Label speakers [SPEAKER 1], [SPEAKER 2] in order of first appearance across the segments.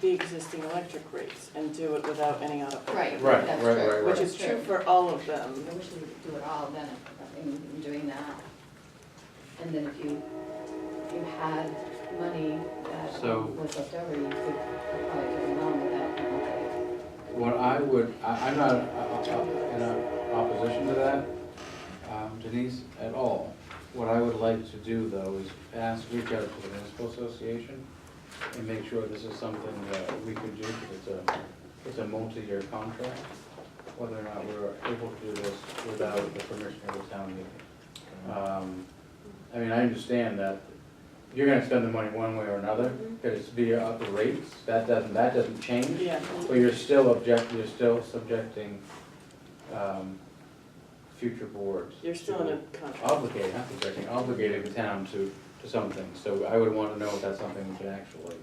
[SPEAKER 1] the existing electric rates and do it without any out-of-pocket.
[SPEAKER 2] Right,
[SPEAKER 3] Right,
[SPEAKER 2] that's
[SPEAKER 3] right,
[SPEAKER 2] true.
[SPEAKER 3] right,
[SPEAKER 1] Which is true for all of them.
[SPEAKER 2] I wish we could do it all then, if- in in doing that. And then if you, if you had money that
[SPEAKER 3] So-
[SPEAKER 2] was left over, you could apply it to the loan without penalty.
[SPEAKER 3] What I would, I, I'm not uh, uh, in a opposition to that, um, Denise, at all. What I would like to do though is ask, reach out to the municipal association and make sure this is something that we could do, because it's a, it's a multi-year contract, whether or not we're able to do this without the permission of the town meeting. Um, I mean, I understand that you're gonna spend the money one way or another, because it's via up the rates, that doesn't, that doesn't change.
[SPEAKER 1] Yeah,
[SPEAKER 3] But you're still object, you're still subjecting, um, future boards.
[SPEAKER 1] you're still in a contract.
[SPEAKER 3] Obligated, not subjecting, obligating the town to, to something, so I would wanna know if that's something we can actually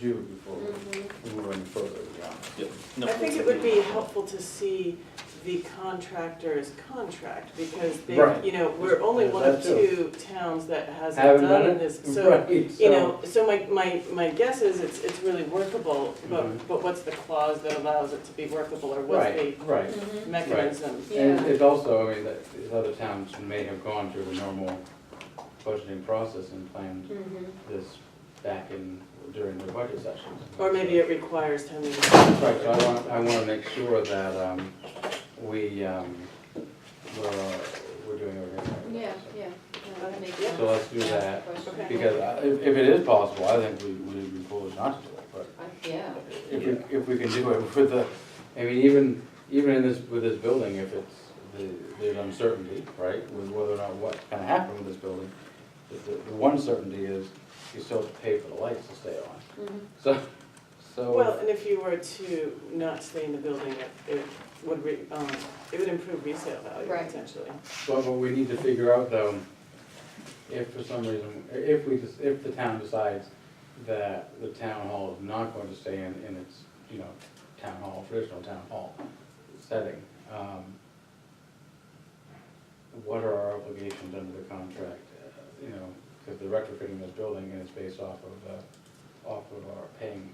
[SPEAKER 3] do before
[SPEAKER 1] Mm-hmm.
[SPEAKER 3] we move any further, yeah.
[SPEAKER 4] Yep. No,
[SPEAKER 1] I think it would be helpful to see the contractor's contract, because they,
[SPEAKER 3] Right.
[SPEAKER 1] you know, we're only one of
[SPEAKER 3] There's that
[SPEAKER 1] two towns that hasn't
[SPEAKER 3] Haven't done
[SPEAKER 1] done
[SPEAKER 3] it?
[SPEAKER 1] this, so,
[SPEAKER 3] Right,
[SPEAKER 1] you
[SPEAKER 3] so-
[SPEAKER 1] know, so my, my, my guess is it's, it's really workable,
[SPEAKER 3] Mhm.
[SPEAKER 1] but, but what's the clause that allows it to be workable, or what's the
[SPEAKER 3] Right, right.
[SPEAKER 2] Mm-hmm,
[SPEAKER 1] mechanism?
[SPEAKER 3] And it's also, I mean, that, these other towns may have gone through the normal budgeting process and planned
[SPEAKER 2] mm-hmm,
[SPEAKER 3] this back in, during their budget sessions.
[SPEAKER 1] Or maybe it requires town meeting.
[SPEAKER 3] Right, so I want, I want to make sure that um, we, um, we're, we're doing everything right.
[SPEAKER 2] Yeah, yeah, no, that makes
[SPEAKER 1] Yeah.
[SPEAKER 2] sense.
[SPEAKER 3] So let's do
[SPEAKER 2] Yeah,
[SPEAKER 3] that,
[SPEAKER 2] question.
[SPEAKER 1] Okay.
[SPEAKER 3] Because I- if, if it is possible, I think we, we'd be foolish not to do it, but
[SPEAKER 2] I- Yeah,
[SPEAKER 3] if we, if we can do it with the, I mean, even, even in this, with this building, if it's, the- there's uncertainty, right? With whether or not what's gonna happen with this building, the, the the one certainty is you still have to pay for the lights to stay on.
[SPEAKER 2] Mhm.
[SPEAKER 3] So, so.
[SPEAKER 1] Well, and if you were to not stay in the building, it, it would re, um, it would improve resale value
[SPEAKER 2] Right.
[SPEAKER 1] potentially.
[SPEAKER 3] But what we need to figure out though, if for some reason, if we, just- if the town decides that the town hall is not going to stay in, in its, you know, town hall, traditional town hall setting, um, what are our obligations under the contract, uh, you know, because they're retrofitting this building and it's based off of, uh, off of our paying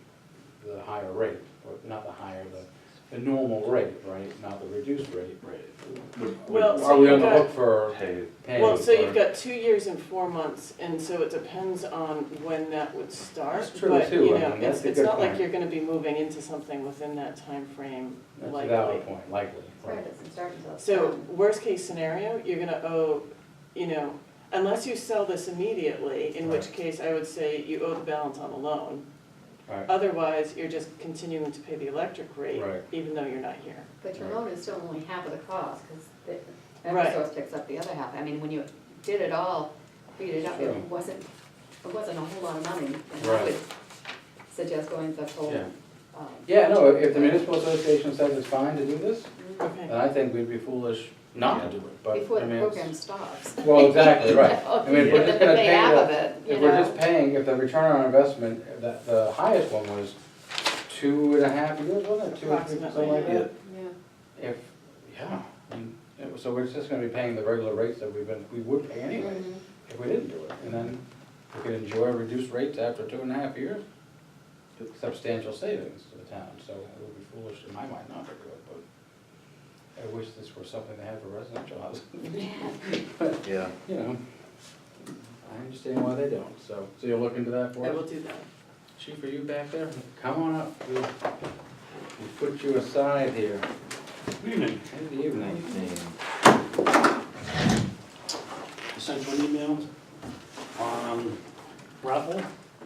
[SPEAKER 3] the higher rate, or not the higher, the, the normal rate, right, not the reduced rate.
[SPEAKER 4] Would-
[SPEAKER 1] Well,
[SPEAKER 3] Are
[SPEAKER 1] so
[SPEAKER 3] we
[SPEAKER 1] you've
[SPEAKER 3] on the
[SPEAKER 1] got,
[SPEAKER 3] hook for?
[SPEAKER 4] would pay-
[SPEAKER 3] pay
[SPEAKER 1] well, so
[SPEAKER 3] for-
[SPEAKER 1] you've got two years and four months, and so it depends on when that would start.
[SPEAKER 3] That's true,
[SPEAKER 1] But,
[SPEAKER 3] too,
[SPEAKER 1] you
[SPEAKER 3] I
[SPEAKER 1] know,
[SPEAKER 3] mean,
[SPEAKER 1] it's,
[SPEAKER 3] that's a
[SPEAKER 1] it's
[SPEAKER 3] good
[SPEAKER 1] not like
[SPEAKER 3] point.
[SPEAKER 1] you're gonna be moving into something within that timeframe
[SPEAKER 3] That's a
[SPEAKER 1] likely.
[SPEAKER 3] valid point, likely.
[SPEAKER 2] right, it doesn't start until. it's
[SPEAKER 1] So
[SPEAKER 2] done.
[SPEAKER 1] worst case scenario, you're gonna owe, you know, unless you sell this immediately, in which
[SPEAKER 3] Right.
[SPEAKER 1] case I would say you owe the balance on the loan.
[SPEAKER 3] Right,
[SPEAKER 1] Otherwise, you're just continuing to pay the electric rate,
[SPEAKER 3] Right.
[SPEAKER 1] even though you're not here.
[SPEAKER 2] But your loan is still only half of the cost, because
[SPEAKER 1] Right.
[SPEAKER 2] Eversource picks up the other half. I mean, when you did it all, figured it out, it
[SPEAKER 3] Sure.
[SPEAKER 2] wasn't, it wasn't a whole lot of money. And I
[SPEAKER 3] Right.
[SPEAKER 2] would suggest going the whole,
[SPEAKER 3] Yeah.
[SPEAKER 2] um,
[SPEAKER 3] Yeah, no, if the municipal association says it's fine to do this, then
[SPEAKER 1] Okay.
[SPEAKER 3] I think we'd be foolish not to do it, but,
[SPEAKER 2] before
[SPEAKER 3] I
[SPEAKER 2] the
[SPEAKER 3] mean,
[SPEAKER 2] program
[SPEAKER 3] it's.
[SPEAKER 2] stops.
[SPEAKER 3] Well, exactly, right. I mean, if we're
[SPEAKER 2] Get
[SPEAKER 3] just
[SPEAKER 2] the
[SPEAKER 3] gonna
[SPEAKER 2] pay
[SPEAKER 3] pay
[SPEAKER 2] out of
[SPEAKER 3] the-
[SPEAKER 2] it, you
[SPEAKER 3] If we're just
[SPEAKER 2] know.
[SPEAKER 3] paying, if the return on investment, the, the highest one was two and a half years, wasn't it? Two or three, something like
[SPEAKER 1] Approximately,
[SPEAKER 3] that? If, yeah, and, it was- so we're just gonna be paying the regular rates that we've been, we would pay
[SPEAKER 2] Yeah.
[SPEAKER 1] Mm-hmm.
[SPEAKER 3] anyway,
[SPEAKER 2] Mhm.
[SPEAKER 3] if we didn't do it. And then we could enjoy reduced rates after two and a half years. substantial savings to the town, so it would be foolish in my mind not to do it, but I wish this were something they had for residential housing,
[SPEAKER 4] Yeah.
[SPEAKER 3] you know. I understand why they don't, so, so you'll look into that for
[SPEAKER 1] I will
[SPEAKER 3] us?
[SPEAKER 1] do that.
[SPEAKER 3] Chief, are you back there? Come on up, we'll, we'll put you aside here.
[SPEAKER 5] Evening.
[SPEAKER 3] Good evening.
[SPEAKER 5] I Sent you an email on Um, Raffle.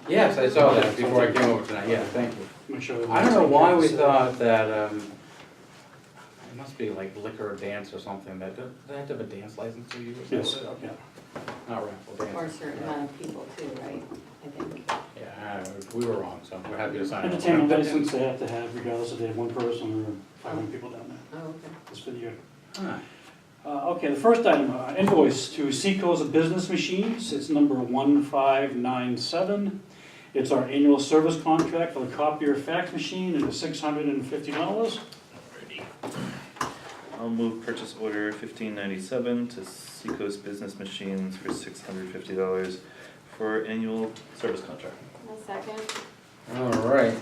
[SPEAKER 3] Yes, I saw that before I came over tonight, yeah, thank you.
[SPEAKER 5] Make sure
[SPEAKER 3] I don't know why we
[SPEAKER 5] everyone's-
[SPEAKER 3] thought that, um, it must be like liquor or dance or something, that, do they have to have a dance license to you or
[SPEAKER 5] Yes,
[SPEAKER 3] something?
[SPEAKER 5] okay.
[SPEAKER 3] Not raffle dance.
[SPEAKER 2] Or a certain amount of people too, right, I think.
[SPEAKER 3] Yeah, I- we were wrong, so we're happy to sign it.
[SPEAKER 5] Entertainment license they have to have regardless if they have one person or five hundred people down there.
[SPEAKER 2] Oh, okay.
[SPEAKER 5] It's for the year.
[SPEAKER 3] Huh.
[SPEAKER 5] Uh, okay, the first item, uh, invoice to Seacoast Business Machines, it's number one five nine seven. It's our annual service contract for the copier fax machine, and it's six hundred and fifty dollars.
[SPEAKER 4] I'll move purchase order fifteen ninety-seven to Seacoast Business Machines for six hundred fifty dollars for annual service contract.
[SPEAKER 2] second.
[SPEAKER 3] All right,